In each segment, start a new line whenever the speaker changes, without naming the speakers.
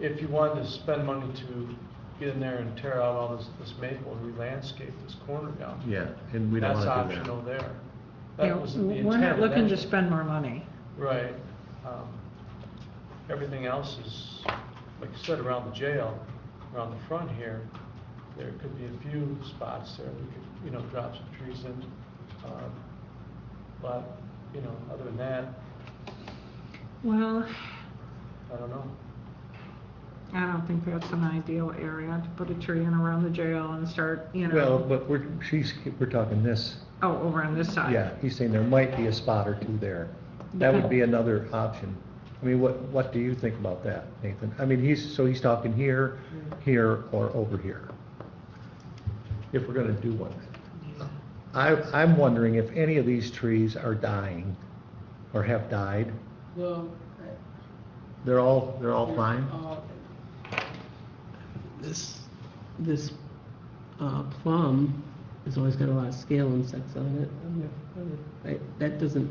if you wanted to spend money to get in there and tear out all this, this maple and re-landscape this corner down.
Yeah, and we don't wanna do
That's optional
that.
there.
You
That
know,
wasn't the
We're not
intent,
looking to
actually.
spend more money.
Right. Um, Everything else is, like you said, around the jail, around the front here, there could be a few spots there, we could, you know, drop some trees in. um, But, you know, other than that,
Well,
I don't know.
I don't think that's an ideal area to put a tree in around the jail and start, you know.
Well, but we're, she's, we're talking this,
Oh, over on this side.
yeah, he's saying there might be a spot or two there. That would be another option. I mean, what, what do you think about that, Nathan? I mean, he's, so he's talking here, here, or over here. If we're gonna do one. I, I'm wondering if any of these trees are dying, or have died.
Well,
They're all, they're all fine?
uh, this, this uh, plum has always got a lot of scale insects on it. I'm not- I'm not- I- That doesn't,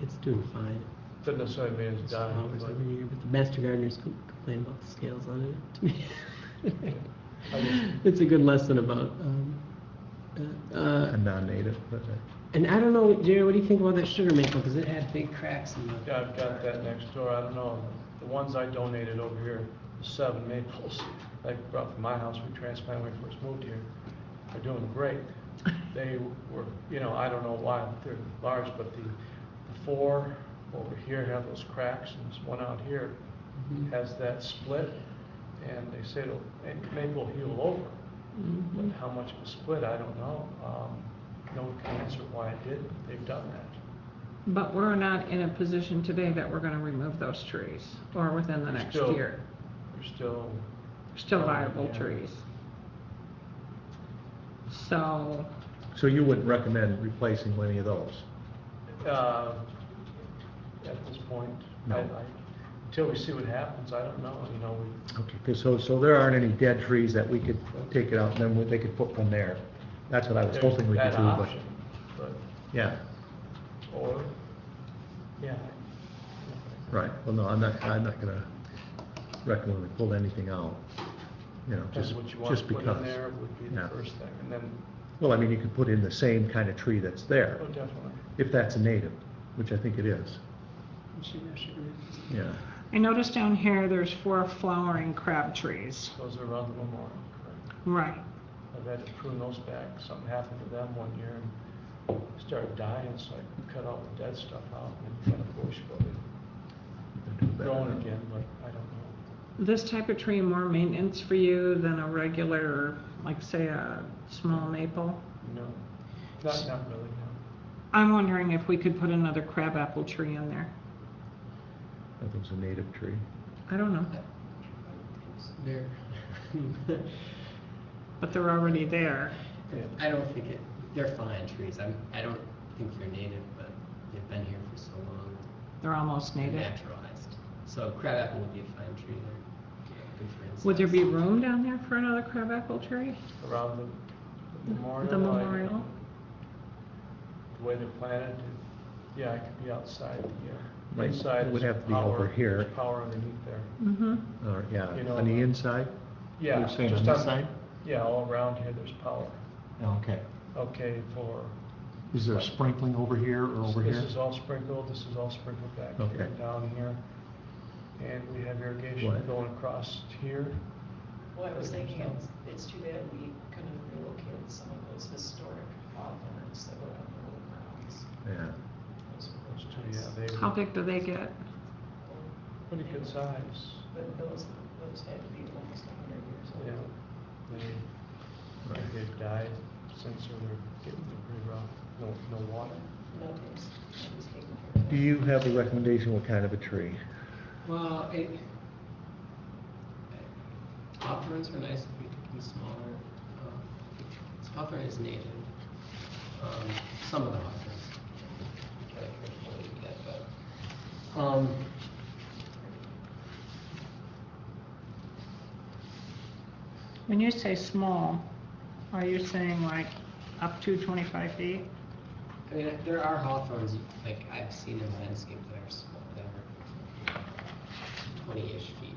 it's doing fine.
Doesn't necessarily mean it's
It's
dying,
flowers
but
every year, but the master gardeners com- complain about the scales on it to me.
I just-
It's a good lesson about, um, uh, uh,
A non-native, but, uh,
and I don't know, Jerry, what do you think about that sugar maple? Because it had big cracks in the.
yeah, I've got that next door, I don't know. The ones I donated over here, the seven maples I brought from my house, we transplanted when we first moved here, are doing great. They were, you know, I don't know why they're large, but the, the four over here have those cracks, and this one out here
Mhm.
has that split, and they say it'll, and maybe will heal over.
Mm-hmm.
But how much of a split, I don't know. Um, no one can answer why it did, but they've done that.
But we're not in a position today that we're gonna remove those trees, or within the
They're
next
still-
year.
They're still,
Still
Um,
viable
yeah.
trees. So,
so you wouldn't recommend replacing any of those?
uh, at this point, I,
No.
I, until we see what happens, I don't know, you know, we,
Okay, 'cause so, so there aren't any dead trees that we could take it out, and then they could put one there? That's what I was
there's
hoping we could
that
do, but,
option. But,
yeah,
or, yeah.
right, well, no, I'm not, I'm not gonna recommend we pull anything out, you know,
Depends
just,
what you want to
just
put in
because.
there would be the
Yeah.
first thing, and then,
Well, I mean, you could put in the same kind of tree that's there,
oh, definitely.
if that's a native, which I think it is,
Sugar- sugar maples.
yeah.
I noticed down here, there's four flowering crab trees.
Those are around the memorial, correct?
Right.
I've had to prune those back, something happened to them one year, and started dying, so I cut all the dead stuff out and kind of bush building. Growing again, but I don't know.
This type of tree more maintenance for you than a regular, like say a small maple?
No, not, not really, no.
I'm wondering if we could put another crabapple tree in there.
I think it's a native tree.
I don't know,
There. mm-hmm,
but they're already there.
I don't think it, they're fine trees, I'm, I don't think they're native, but they've been here for so long,
They're almost
they're
native.
naturalized. So crabapple would be a fine tree there, good for insects.
Would there be room down there for another crabapple tree?
Around the the memorial.
The
I-
memorial?
The way they're planted, it- yeah, it could be outside, yeah.
Right,
Inside
it would
is
have to be over
power-
here.
there's Power underneath there.
Mm-hmm.
Or, yeah,
You know, uh,
on the inside?
Yeah.
You're saying on
just
this side?
Yeah, all around here, there's power.
Okay.
Okay, for.
Is there sprinkling over here or over here?
This is all sprinkled, this is all sprinkled back here,
Okay.
down here. And we have irrigation
What?
going across here.
Well, I was thinking, it's, it's too bad we couldn't relocate some of those historic hawthorns that were on the old grounds.
Yeah,
Those were
Those
really
two,
nice.
yeah, they
How
were
big do they get?
pretty good size,
But those, those had to be almost a hundred years old.
yeah. They,
Right.
they've died since they were getting pretty rough, no, no water.
Nothing's, nothing's taken care of.
Do you have a recommendation what kind of a tree?
Well, it, uh, hawthorns are nice if you can smaller, um, hawthorn is native, um, some of the hawthorns. I can't really do that, but, Um,
When you say small, are you saying like up to twenty-five feet?
I mean, there are hawthorns, like I've seen in landscape that are small, that are twenty-ish feet